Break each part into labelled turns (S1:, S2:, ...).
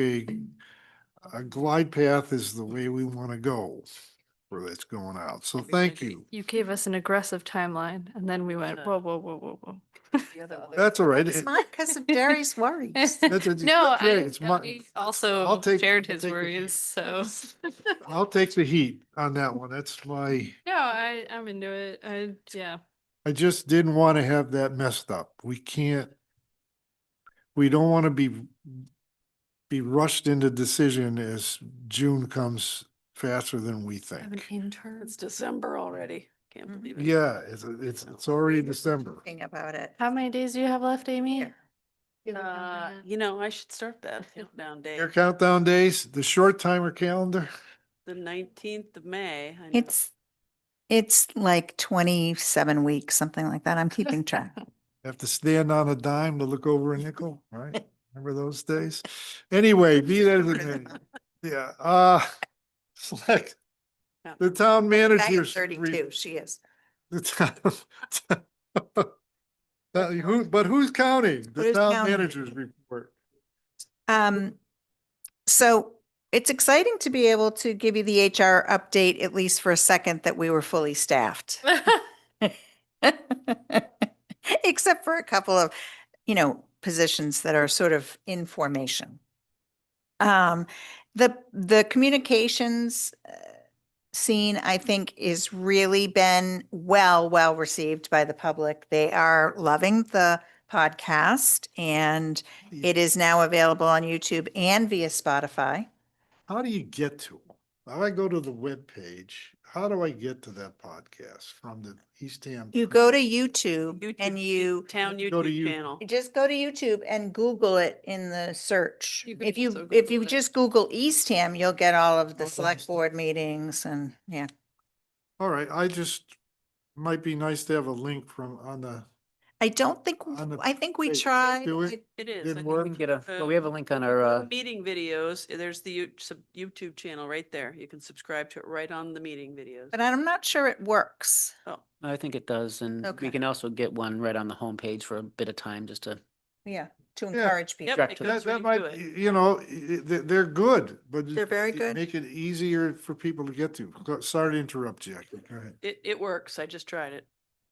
S1: a, a glide path is the way we want to go for that's going out. So thank you.
S2: You gave us an aggressive timeline and then we went,
S3: Yeah.
S2: whoa, whoa, whoa, whoa, whoa.
S3: The other way.
S1: That's all right.
S4: It's
S1: It-
S4: not because of Jerry's worries.
S1: That's a-
S2: No,
S1: yeah,
S2: I
S1: it's my-
S2: we
S1: I'll
S2: also
S1: take-
S2: shared
S1: I'll
S2: his
S1: take the heat.
S2: worries, so.
S1: I'll take the heat on that one. That's my,
S2: No, I, I'm into it. I, yeah.
S1: I just didn't want to have that messed up. We can't, we don't want to be, be rushed into decision as June comes faster than we think.
S4: intern.
S3: It's December already. Can't
S5: Mm-hmm.
S3: believe it.
S1: Yeah, it's, it's, it's already December.
S4: Thinking about it.
S2: How many days do you have left, Amy?
S3: Uh,
S2: Uh,
S3: you know, I should start that countdown day,
S1: Your countdown days, the short timer calendar.
S3: the nineteenth of May. I know.
S4: It's, it's like twenty-seven weeks, something like that. I'm keeping track.
S1: Have to stand on a dime to look over a nickel, right? Remember those days? Anyway, be that as it may, yeah, uh, select
S3: Yeah.
S1: the town manager's.
S4: Thirty-two, she is.
S1: The town. Uh, Who, but who's counting? The
S4: Who's
S1: town
S4: counting?
S1: manager's report.
S4: Um, so it's exciting to be able to give you the HR update, at least for a second, that we were fully staffed. Except for a couple of, you know, positions that are sort of in formation. Um, the, the communications uh, scene, I think, is really been well, well received by the public. They are loving the podcast and it is now available on YouTube and via Spotify.
S1: How do you get to them? How do I go to the webpage? How do I get to that podcast from the Eastham?
S4: You go to YouTube and
S3: YouTube,
S4: you
S3: Town
S1: Go to you-
S3: YouTube channel.
S4: just go to YouTube and Google it in the search.
S2: You can
S4: If
S2: also
S4: you, if
S2: Google
S4: you
S2: it.
S4: just Google Eastham, you'll get all of the
S1: Okay.
S4: select board meetings and, yeah.
S1: All right, I just, might be nice to have a link from on the,
S4: I don't think,
S1: On the
S4: I think we
S1: page,
S4: tried.
S1: do we?
S4: I-
S3: It is. I
S1: Didn't
S3: think
S1: work?
S5: We can get a,
S3: uh,
S5: well, we have a link on
S3: you
S5: our,
S3: go to
S5: uh,
S3: Meeting videos, uh, there's the you- sub- YouTube channel right there. You can subscribe to it right on the meeting videos.
S4: But I'm not sure it works.
S3: Oh,
S5: I think it does, and
S4: Okay.
S5: we can also get one right on the homepage for a bit of time, just to,
S4: Yeah, to
S1: Yeah.
S4: encourage people.
S3: Yep, it
S5: Direct to the-
S1: that,
S3: goes
S1: that
S3: right
S1: might,
S3: to
S1: y-
S3: it.
S1: you know, y- they're, they're good, but.
S4: They're very
S1: it-
S4: good.
S1: Make it easier for people to get to. Go- Sorry to interrupt, Jackie. Go ahead.
S3: It, it works. I just tried it.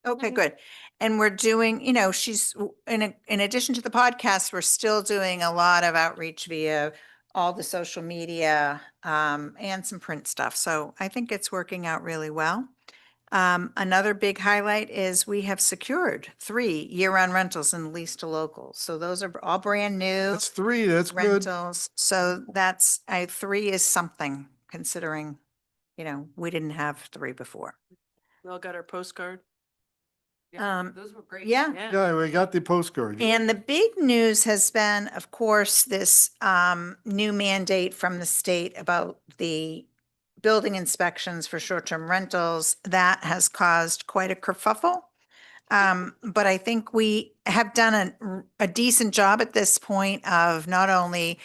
S4: Okay,
S2: Mhm.
S1: Mm-hmm.
S4: good. And we're doing, you know, she's, w- in, a- in addition to the podcast, we're still doing a lot of outreach via all the social media, um, and some print stuff. So I think it's working out really well. Um, another big highlight is we have secured three year-round rentals and lease to locals. So those are all brand new
S1: That's three, that's good.
S4: rentals. So that's, I, three is something considering, you know, we didn't have three before.
S3: We all got our postcard. Yeah,
S4: Um,
S3: Those were great.
S4: yeah.
S3: Yeah.
S1: Yeah, we got the postcard.
S4: And the big news has been, of course, this um, new mandate from the state about the building inspections for short-term rentals. That has caused quite a kerfuffle. Um, But I think we have done a- a decent job at this point of not only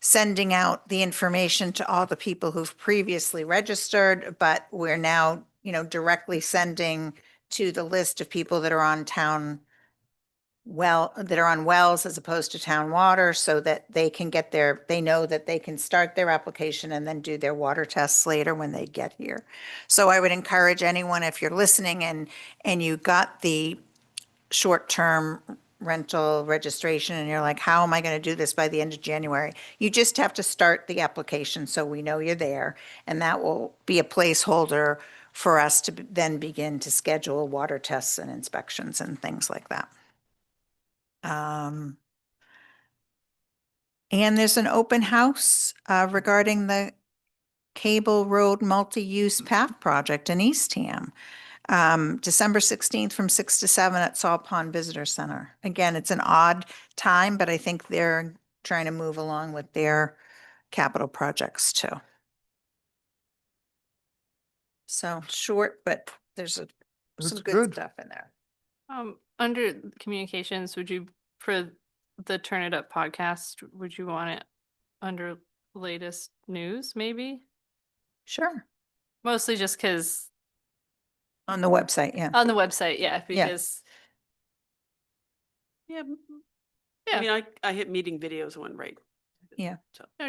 S4: sending out the information to all the people who've previously registered, but we're now, you know, directly sending to the list of people that are on town well, that are on wells as opposed to town water so that they can get their, they know that they can start their application and then do their water tests later when they get here. So I would encourage anyone, if you're listening and, and you got the short-term rental registration and you're like, how am I going to do this by the end of January? You just have to start the application so we know you're there. And that will be a placeholder for us to b- then begin to schedule water tests and inspections and things like that. Um, and there's an open house, uh, regarding the Cable Road Multi-Use Path Project in Eastham. Um, December sixteenth from six to seven at Saw Pond Visitor Center. Again, it's an odd time, but I think they're trying to move along with their capital projects too. So short, but there's a,
S1: That's
S4: some good
S1: good.
S4: stuff in there.
S2: Um, under communications, would you, for the Turn It Up podcast, would you want it under latest news, maybe?
S4: Sure.
S2: Mostly just because
S4: On the website, yeah.
S2: on the website, yeah,
S4: Yeah.
S2: because
S3: Yeah. m-
S2: Yeah.
S3: I mean, I, I hit meeting videos one right